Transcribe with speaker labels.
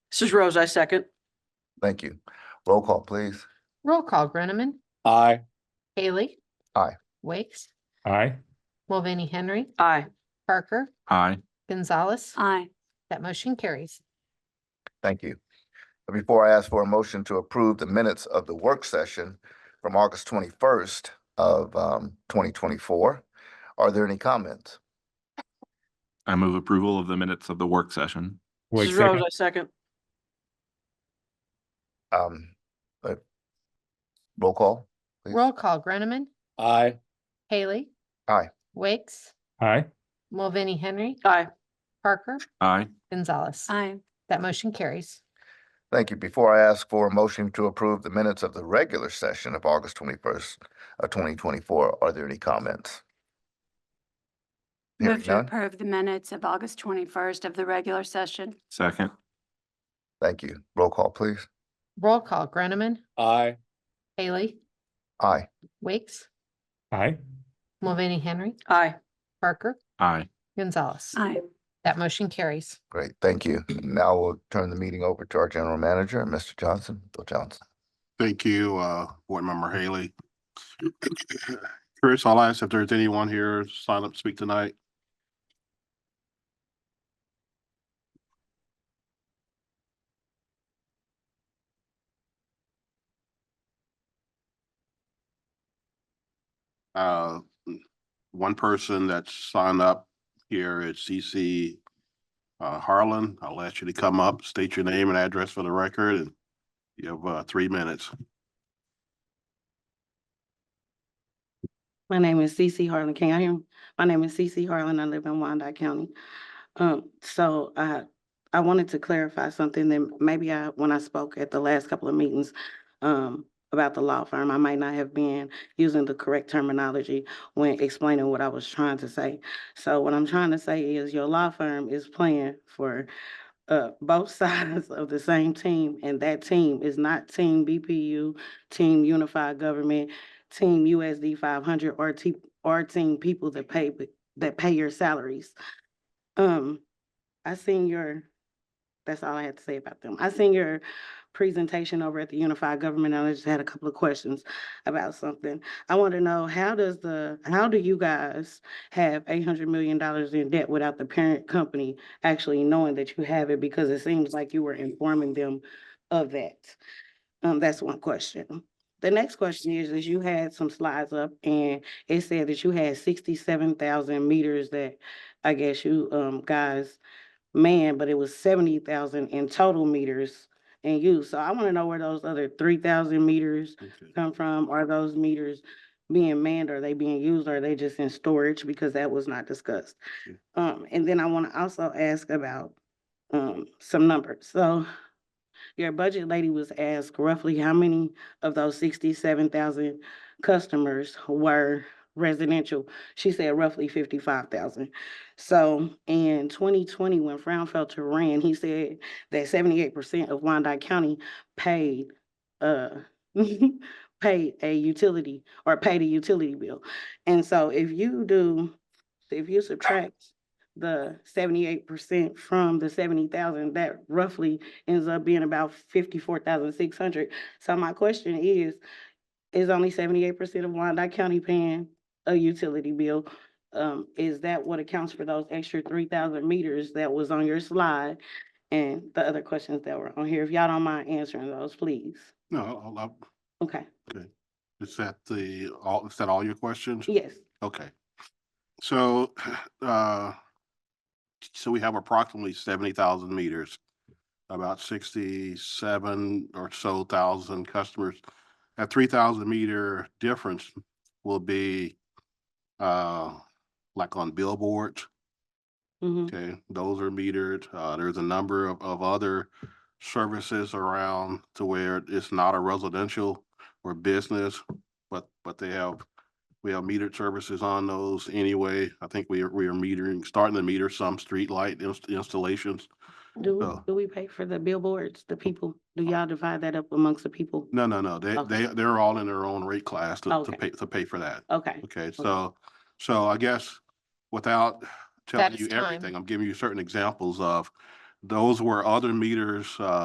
Speaker 1: Mrs. Rose, I second.
Speaker 2: Thank you. Roll call, please.
Speaker 3: Roll call, Groneman,
Speaker 4: Aye.
Speaker 3: Haley.
Speaker 2: Aye.
Speaker 3: Wakes,
Speaker 4: Aye.
Speaker 3: Mulvaney Henry,
Speaker 1: Aye.
Speaker 3: Parker,
Speaker 4: Aye.
Speaker 3: Gonzalez.
Speaker 5: aye,
Speaker 3: That motion carries.
Speaker 2: Thank you. Before I ask for a motion to approve the minutes of the work session from August twenty-first of um twenty twenty-four, are there any comments?
Speaker 6: I move approval of the minutes of the work session.
Speaker 4: Wait,
Speaker 1: Mrs. Rose, I
Speaker 4: second.
Speaker 1: second.
Speaker 2: Um, uh, roll call? Please.
Speaker 3: Roll call, Groneman,
Speaker 4: Aye.
Speaker 3: Haley.
Speaker 2: Aye.
Speaker 3: Wakes,
Speaker 4: Aye.
Speaker 3: Mulvaney Henry,
Speaker 1: Aye.
Speaker 3: Parker,
Speaker 6: Aye.
Speaker 3: Gonzalez.
Speaker 5: aye,
Speaker 3: That motion carries.
Speaker 2: Thank you. Before I ask for a motion to approve the minutes of the regular session of August twenty-first of twenty twenty-four, are there any comments? Hearing
Speaker 5: move to
Speaker 2: none?
Speaker 5: approve the minutes of August twenty-first of the regular session,
Speaker 6: Second.
Speaker 2: Thank you. Roll call, please.
Speaker 3: Roll call, Groneman,
Speaker 4: Aye.
Speaker 3: Haley,
Speaker 2: Aye.
Speaker 3: Wakes,
Speaker 4: Aye.
Speaker 3: Mulvaney Henry,
Speaker 1: Aye.
Speaker 3: Parker,
Speaker 6: Aye.
Speaker 3: Gonzalez.
Speaker 5: aye.
Speaker 3: That motion carries.
Speaker 2: Great, thank you. Now we'll turn the meeting over to our general manager, Mr. Johnson, Bill Johnson.
Speaker 7: Thank you, uh, Board Member Haley. Chris, I'll ask if there's anyone here sign up to speak tonight. Uh, one person that's signed up here is CC uh, Harlan. I'll ask you to come up, state your name and address for the record and you have uh, three minutes.
Speaker 8: My name is CC Harlan. Can I hear? me? My name is CC Harlan. I live in Wyandotte County. Um, so I, I wanted to clarify something that maybe I, when I spoke at the last couple of meetings, um, about the law firm, I might not have been using the correct terminology when explaining what I was trying to say. So what I'm trying to say is your law firm is playing for, uh, both sides of the same team, and that team is not Team BPU, Team Unified Government, Team USD five hundred or te- or team people that pay b- that pay your salaries. Um, I seen your, that's all I had to say about them. I seen your presentation over at the Unified Government. and I just had a couple of questions about something. I want to know, how does the, how do you guys have eight hundred million dollars in debt without the parent company actually knowing that you have it? Because it seems like you were informing them of that. Um, that's one question. The next question is, is you had some slides up and it said that you had sixty-seven thousand meters that I guess you um guys manned, but it was seventy thousand in total meters in use. So I want to know where those other three thousand meters come from? Are those meters being manned? Are they being used? Are they just in storage? Because that was not discussed.
Speaker 7: Sure.
Speaker 8: Um, and then I want to also ask about um some numbers. So your budget lady was asked roughly how many of those sixty-seven thousand customers were residential. She said roughly fifty-five thousand. So in twenty twenty, when Fraunfelter ran, he said that seventy-eight percent of Wyandotte County paid, uh, paid a utility or paid a utility bill. And so if you do, if you subtract the seventy-eight percent from the seventy thousand, that roughly ends up being about fifty-four thousand six hundred. So my question is, is only seventy-eight percent of Wyandotte County paying a utility bill? Um, is that what accounts for those extra three thousand meters that was on your slide? And the other questions that were on here, if y'all don't mind answering those, please.
Speaker 7: No, I'll- I'll-
Speaker 8: Okay,
Speaker 7: is that the, all, is that all your questions?
Speaker 8: yes,
Speaker 7: Okay. So, uh, so we have approximately seventy thousand meters, about sixty-seven or so thousand customers. That three thousand meter difference will be, uh, like on billboards.
Speaker 8: hmm
Speaker 7: Okay, those are metered. Uh, there's a number of, of other services around to where it's not a residential or business, but, but they have, we have metered services on those anyway. I think we are, we are metering, starting to meter some streetlight ins- installations.
Speaker 8: Do,
Speaker 7: Oh.
Speaker 8: we- do we pay for the billboards, the people? Do y'all divide that up amongst the people?
Speaker 7: No, no, no, they,
Speaker 8: Okay.
Speaker 7: they, they're all in their own rate class to, to
Speaker 8: Okay.
Speaker 7: pay, to pay for that.
Speaker 8: Okay,
Speaker 7: Okay, so, so I guess without telling
Speaker 3: is
Speaker 7: you
Speaker 3: time.
Speaker 7: everything, I'm giving you certain examples of those were other meters, uh,